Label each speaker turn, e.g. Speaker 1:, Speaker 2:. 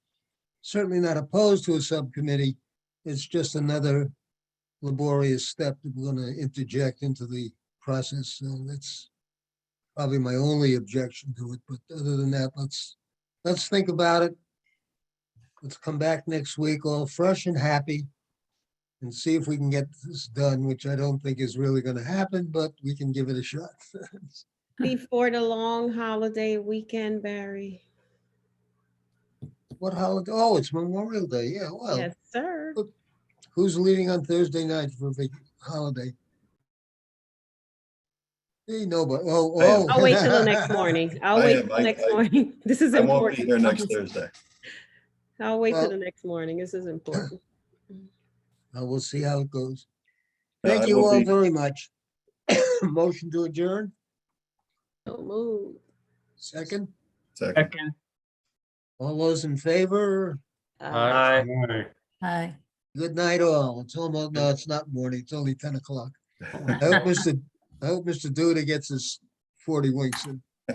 Speaker 1: certainly not opposed to a subcommittee. It's just another laborious step that we're gonna interject into the process, so that's probably my only objection to it, but other than that, let's, let's think about it. Let's come back next week all fresh and happy and see if we can get this done, which I don't think is really gonna happen, but we can give it a shot.
Speaker 2: Before the long holiday weekend, Barry.
Speaker 1: What holiday? Oh, it's Memorial Day, yeah, well,
Speaker 2: Yes, sir.
Speaker 1: who's leaving on Thursday night for a big holiday? Hey, nobody, oh,
Speaker 3: I am.
Speaker 1: oh.
Speaker 2: I'll wait till the next morning. I'll
Speaker 3: I
Speaker 2: wait
Speaker 3: am.
Speaker 2: till
Speaker 3: I-
Speaker 2: next
Speaker 3: I-
Speaker 2: morning. This is
Speaker 3: I won't be
Speaker 2: important.
Speaker 3: here next Thursday.
Speaker 2: I'll wait till
Speaker 1: Well-
Speaker 2: the next morning. This is important.
Speaker 1: Uh, We'll see how it goes.
Speaker 3: Yeah, I
Speaker 1: Thank you
Speaker 3: will
Speaker 1: all
Speaker 3: be-
Speaker 1: very much. Motion to adjourn,
Speaker 2: Don't move.
Speaker 1: second.
Speaker 3: Second.
Speaker 4: Second.
Speaker 1: All those in favor?
Speaker 2: Uh,
Speaker 4: Aye.
Speaker 5: Hi.
Speaker 1: Good night all. It's almost, no, it's not morning. It's only ten o'clock. I hope Mr. I hope Mr. Duda gets his forty winks in.